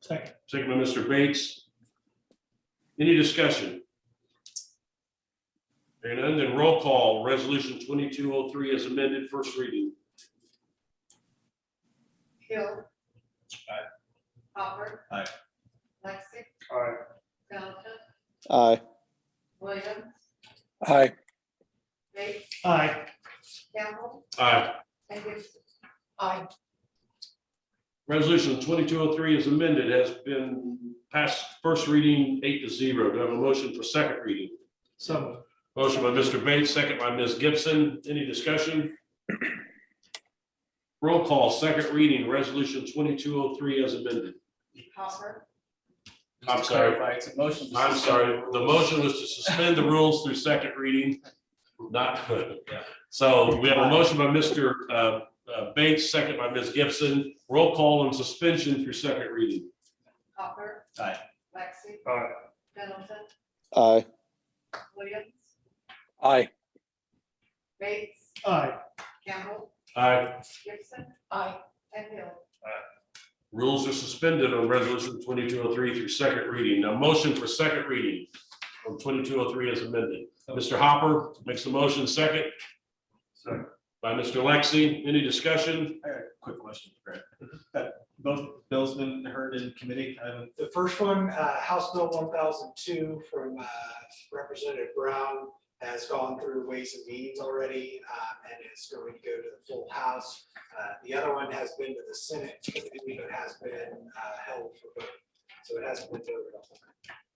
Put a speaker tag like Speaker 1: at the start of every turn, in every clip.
Speaker 1: Second.
Speaker 2: Second by Mr. Bates. Any discussion? Hearing none, then roll call, resolution twenty-two oh three is amended, first reading.
Speaker 3: Hill.
Speaker 1: Aye.
Speaker 3: Hopper.
Speaker 1: Aye.
Speaker 3: Lexi.
Speaker 2: Aye.
Speaker 3: Johnson.
Speaker 4: Aye.
Speaker 3: Williams.
Speaker 4: Aye.
Speaker 3: Bates.
Speaker 1: Aye.
Speaker 3: Campbell.
Speaker 2: Aye.
Speaker 3: And Gibson. Aye.
Speaker 2: Resolution twenty-two oh three is amended, has been passed first reading eight to zero. Do I have a motion for second reading?
Speaker 1: So moved.
Speaker 2: Motion by Mr. Bates, second by Ms. Gibson. Any discussion? Roll call, second reading, resolution twenty-two oh three as amended.
Speaker 3: Hopper.
Speaker 2: I'm
Speaker 5: Just to
Speaker 2: sorry.
Speaker 5: clarify, It's a motion. to
Speaker 2: I'm
Speaker 5: suspend
Speaker 2: sorry, the
Speaker 5: rules.
Speaker 2: motion was to suspend the rules through second reading, not good.
Speaker 5: Yeah.
Speaker 2: So we have a motion by Mr. uh, uh, Bates, second by Ms. Gibson. Roll call on suspension through second reading.
Speaker 3: Hopper.
Speaker 1: Aye.
Speaker 3: Lexi.
Speaker 2: Aye.
Speaker 3: Johnson.
Speaker 4: Aye.
Speaker 3: Williams.
Speaker 4: Aye.
Speaker 3: Bates.
Speaker 1: Aye.
Speaker 3: Campbell.
Speaker 2: Aye.
Speaker 3: Gibson. Aye. And Hill.
Speaker 2: Rules are suspended on resolution twenty-two oh three through second reading. Now motion for second reading on twenty-two oh three as amended. Mr. Hopper makes the motion second.
Speaker 1: Second.
Speaker 2: By Mr. Lexi. Any discussion?
Speaker 5: I got a Quick question, Brad. Have Both bills been heard in committee. um, I haven't-
Speaker 6: The first one, uh, House Bill one thousand two from uh, Representative Brown has gone through Ways and Means already uh, and is going to go to the full House. Uh, The other one has been to the Senate, but has been uh, held for vote. So it hasn't been voted on.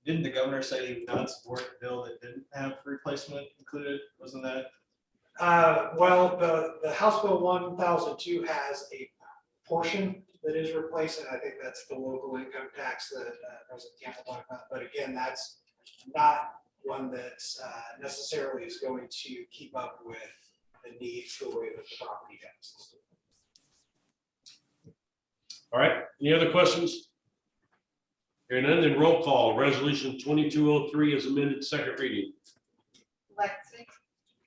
Speaker 5: Didn't the governor say he would not support a bill that didn't have replacement included? Wasn't that?
Speaker 6: Uh, well, the, the House Bill one thousand two has a portion that is replaced, and I think that's the local income tax that uh, President Campbell talked about, but again, that's not one that's uh, necessarily is going to keep up with the needs the way that the property taxes. do.
Speaker 2: All right. Any other questions? Hearing none, then roll call. Resolution twenty-two oh three is amended, second reading.
Speaker 3: Lexi.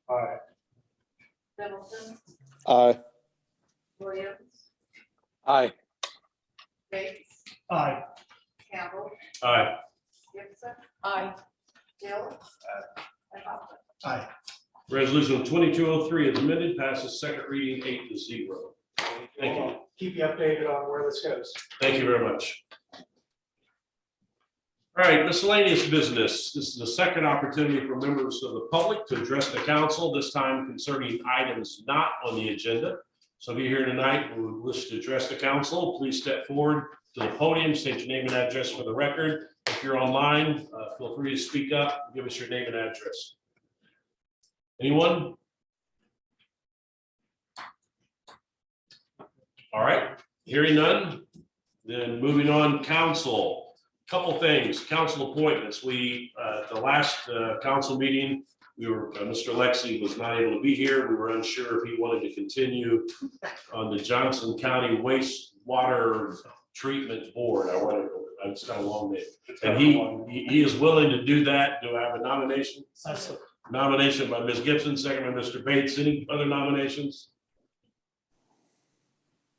Speaker 1: Aye.
Speaker 3: Middleton.
Speaker 4: Aye.
Speaker 3: Williams.
Speaker 4: Aye.
Speaker 3: Bates.
Speaker 1: Aye.
Speaker 3: Campbell.
Speaker 2: Aye.
Speaker 3: Gibson. Aye. Hill. And Hopper.
Speaker 1: Aye.
Speaker 2: Resolution twenty-two oh three is amended, passes second reading eight to zero. Thank you.
Speaker 6: We'll Keep you updated on where this goes.
Speaker 2: Thank you very much. All right, miscellaneous business. This is the second opportunity for members of the public to address the council, this time concerning items not on the agenda. So if you're here tonight who wish to address the council, please step forward to the podium, state your name and address for the record. If you're online, uh, feel free to speak up, give us your name and address. Anyone? All right, hearing none, then moving on, council, couple things, council appointments. We, uh, at the last uh, council meeting, we were, uh, Mr. Lexi was not able to be here. We were unsure if he wanted to continue on the Johnson County Wastewater Treatment Board. I wanted, it's got a long name. And he, he- he is willing to do that. Do I have a nomination?
Speaker 1: I so-
Speaker 2: Nomination by Ms. Gibson, second by Mr. Bates. Any other nominations?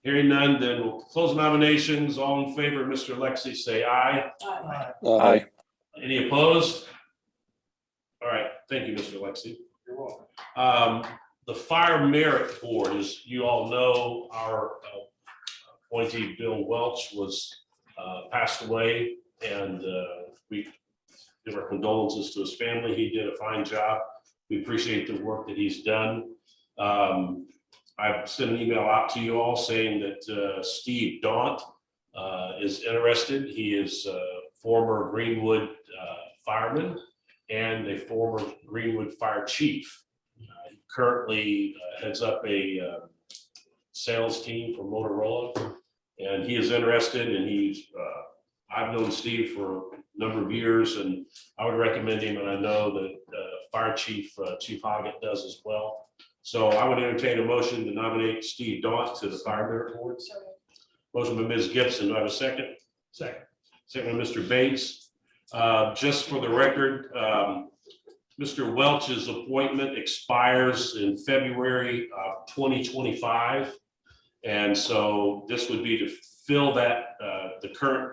Speaker 2: Hearing none, then we'll close nominations. All in favor, Mr. Lexi, say aye.
Speaker 1: Aye.
Speaker 4: Aye.
Speaker 2: Any opposed? All right, thank you, Mr. Lexi.
Speaker 1: You're welcome.
Speaker 2: Um, the Fire Merit Board, as you all know, our uh, appointee Bill Welch was, uh, passed away. And, uh, we give our condolences to his family. He did a fine job. We appreciate the work that he's done. Um, I've sent an email out to you all saying that, uh, Steve Daunt, uh, is interested. He is, uh, former Greenwood, uh, fireman and a former Greenwood Fire Chief. Uh, he Currently uh, heads up a uh, sales team for Motorola, and he is interested, and he's, uh, I've known Steve for a number of years, and I would recommend him, and I know that uh, Fire Chief, uh, Chief Hoggett does as well. So I would entertain a motion to nominate Steve Daunt to the Fire Merit Board. Motion by Ms. Gibson, do I have a second? Second. Second by Mr. Bates. Uh, Just for the record, um, Mr. Welch's appointment expires in February of 2025. And so this would be to fill that, uh, the current